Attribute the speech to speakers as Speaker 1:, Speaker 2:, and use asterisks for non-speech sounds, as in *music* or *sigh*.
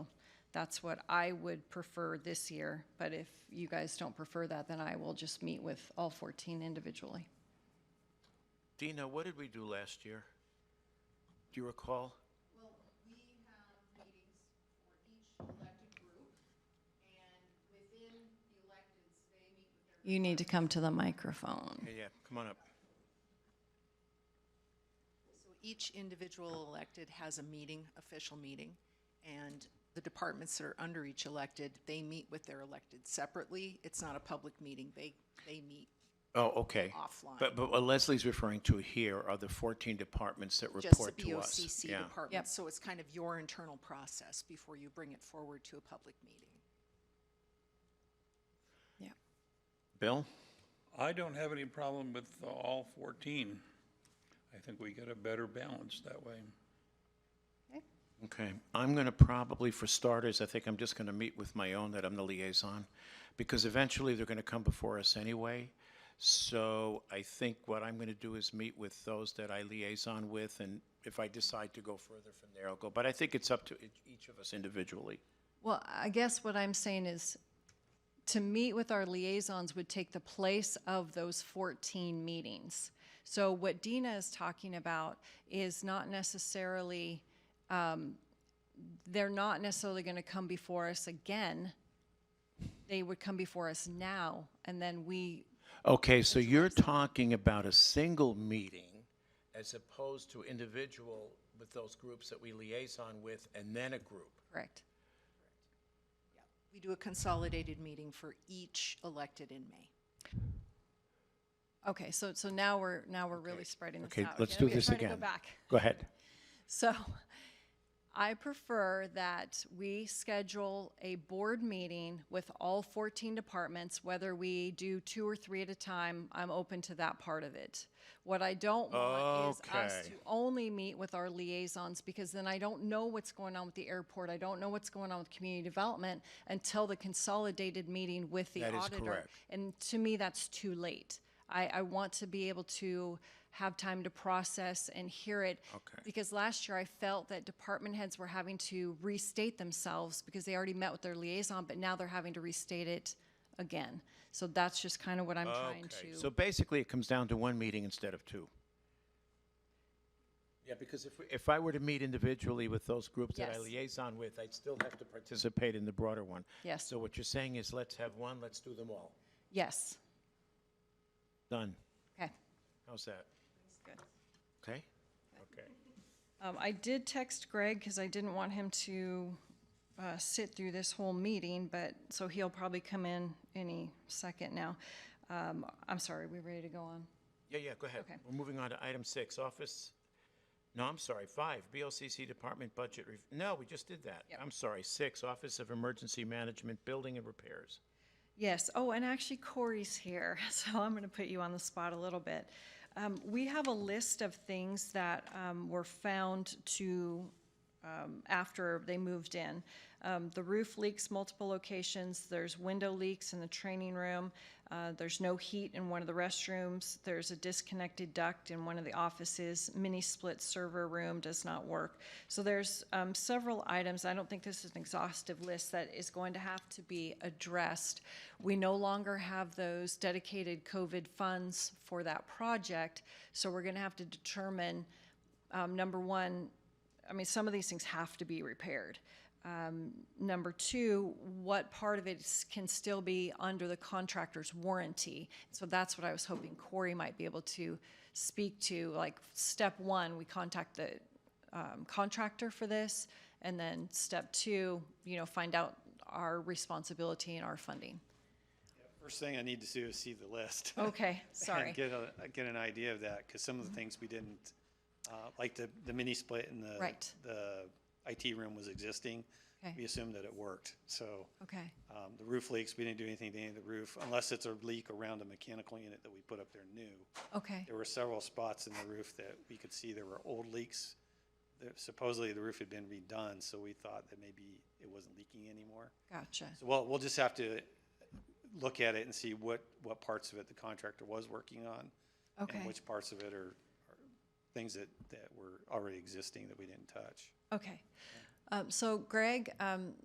Speaker 1: That's what I would prefer this year, but if you guys don't prefer that, then I will just meet with all 14 individually.
Speaker 2: Dina, what did we do last year? Do you recall?
Speaker 3: Well, we have meetings for each elected group, and within the electeds, they meet with their.
Speaker 1: You need to come to the microphone.
Speaker 2: Yeah, yeah, come on up.
Speaker 3: So each individual elected has a meeting, official meeting, and the departments that are under each elected, they meet with their elected separately. It's not a public meeting. They, they meet
Speaker 2: Oh, okay.
Speaker 3: Offline.
Speaker 2: But, but what Leslie's referring to here are the 14 departments that
Speaker 3: just the
Speaker 2: report to us.
Speaker 3: BOCC
Speaker 2: Yeah.
Speaker 1: Yep.
Speaker 3: department. So it's kind of your internal process before you bring it forward to a public meeting.
Speaker 1: Yeah.
Speaker 2: Bill?
Speaker 4: I don't have any problem with uh, all 14. I think we get a better balance that way.
Speaker 2: Okay, I'm gonna probably, for starters, I think I'm just gonna meet with my own, that I'm the liaison, because eventually they're gonna come before us anyway. So I think what I'm gonna do is meet with those that I liaison with, and if I decide to go further from there, I'll go. But I think it's up to each- each of us individually.
Speaker 1: Well, I guess what I'm saying is to meet with our liaisons would take the place of those 14 meetings. So what Dina is talking about is not necessarily, um, they're not necessarily going to come before us again. They would come before us now, and then we,
Speaker 2: Okay, so you're talking about a single meeting as opposed to individual with those groups that we liaison with and then a group.
Speaker 1: correct.
Speaker 3: We do a consolidated meeting for each elected in May.
Speaker 1: Okay, so, so now we're, now we're really spreading this out.
Speaker 2: Okay, let's
Speaker 1: again.
Speaker 2: do
Speaker 1: We are
Speaker 2: this
Speaker 1: trying to
Speaker 2: again.
Speaker 1: Go back.
Speaker 2: Go ahead.
Speaker 1: So *laughs* I prefer that we schedule a board meeting with all 14 departments, whether we do two or three at a time, I'm open to that part of it. What I don't want is us
Speaker 2: Okay.
Speaker 1: to only meet with our liaisons, because then I don't know what's going on with the airport, I don't know what's going on with community development until the consolidated meeting with the
Speaker 2: That is
Speaker 1: auditor.
Speaker 2: correct.
Speaker 1: And to me, that's too late. I, I want to be able to have time to process and hear it.
Speaker 2: Okay.
Speaker 1: Because last year I felt that department heads were having to restate themselves because they already met with their liaison, but now they're having to restate it again. So that's just kind of what I'm trying
Speaker 2: Okay,
Speaker 1: to.
Speaker 2: So basically, it comes down to one meeting instead of two. Yeah, because if, we- if I were to meet individually with those groups that I
Speaker 1: Yes.
Speaker 2: liaison with, I'd still have to participate in the broader one.
Speaker 1: Yes.
Speaker 2: So what you're saying is, let's have one, let's do them all.
Speaker 1: yes.
Speaker 2: Done.
Speaker 1: Okay.
Speaker 2: How's that?
Speaker 1: Good.
Speaker 2: Okay? Okay.
Speaker 1: Um, I did text Greg because I didn't want him to uh, sit through this whole meeting, but so he'll probably come in any second now. Um, I'm sorry, we ready to go on?
Speaker 2: Yeah, yeah, go ahead.
Speaker 1: Okay.
Speaker 2: We're moving on to item six, office, no, I'm sorry, five, BLCC Department Budget, Rev- no, we just did that.
Speaker 1: Yep.
Speaker 2: I'm sorry, six, Office of Emergency Management, Building and Repairs.
Speaker 1: Yes, oh, and actually Corey's here, *laughs* so I'm gonna put you on the spot a little bit. Um, we have a list of things that, um, were found to, um, after they moved in. Um, the roof leaks multiple locations, there's window leaks in the training room, uh, there's no heat in one of the restrooms, there's a disconnected duct in one of the offices, mini split server room does not work. So there's, um, several items, I don't think this is an exhaustive list that is going to have to be addressed. We no longer have those dedicated COVID funds for that project, so we're gonna have to determine, um, number one, I mean, some of these things have to be repaired. Um, number two, what part of it s- can still be under the contractor's warranty? So that's what I was hoping Corey might be able to speak to, like, step one, we contact the um, contractor for this, and then step two, you know, find out our responsibility and our funding.
Speaker 5: First thing I need to do is see the list. *laughs*
Speaker 1: Okay, Oh, sorry. Mm-hmm.
Speaker 5: And get a, get an idea of that, because some of the things we didn't, uh, like the, the mini split in the.
Speaker 1: Right.
Speaker 5: The IT room was existing.
Speaker 1: Okay.
Speaker 5: We assumed that it worked, so,
Speaker 1: Okay,
Speaker 5: um, the roof leaks, we didn't do anything to any of the roof, unless it's a leak around a mechanical unit that we put up there new.
Speaker 1: okay,
Speaker 5: There were several spots in the roof that we could see there were old leaks. There- Supposedly, the roof had been redone, so we thought that maybe it wasn't leaking anymore.
Speaker 1: gotcha.
Speaker 5: So we'll, we'll just have to look at it and see what, what parts of it the contractor was working on.
Speaker 1: Okay.
Speaker 5: And which parts of it are, are things that, that were already existing that we didn't touch.
Speaker 1: Okay. Um, so Greg, um,